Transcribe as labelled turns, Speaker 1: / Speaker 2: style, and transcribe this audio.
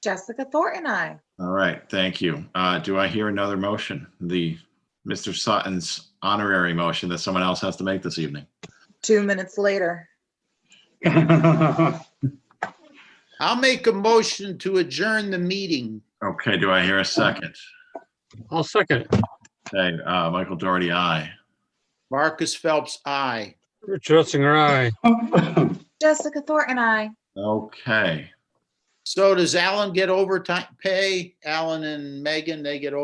Speaker 1: Jessica Thornton, I.
Speaker 2: All right, thank you. Uh, Do I hear another motion? The Mr. Sutton's honorary motion that someone else has to make this evening.
Speaker 1: Two minutes later.
Speaker 3: I'll make a motion to adjourn the meeting.
Speaker 2: Okay, do I hear a second?
Speaker 4: I'll second it.
Speaker 2: Okay, uh, Michael Doherty, aye.
Speaker 3: Marcus Phelps, aye.
Speaker 4: Rich Hunsinger, aye.
Speaker 1: Jessica Thornton, I.
Speaker 2: Okay.
Speaker 3: So does Alan get overtime pay? Alan and Megan, they get overtime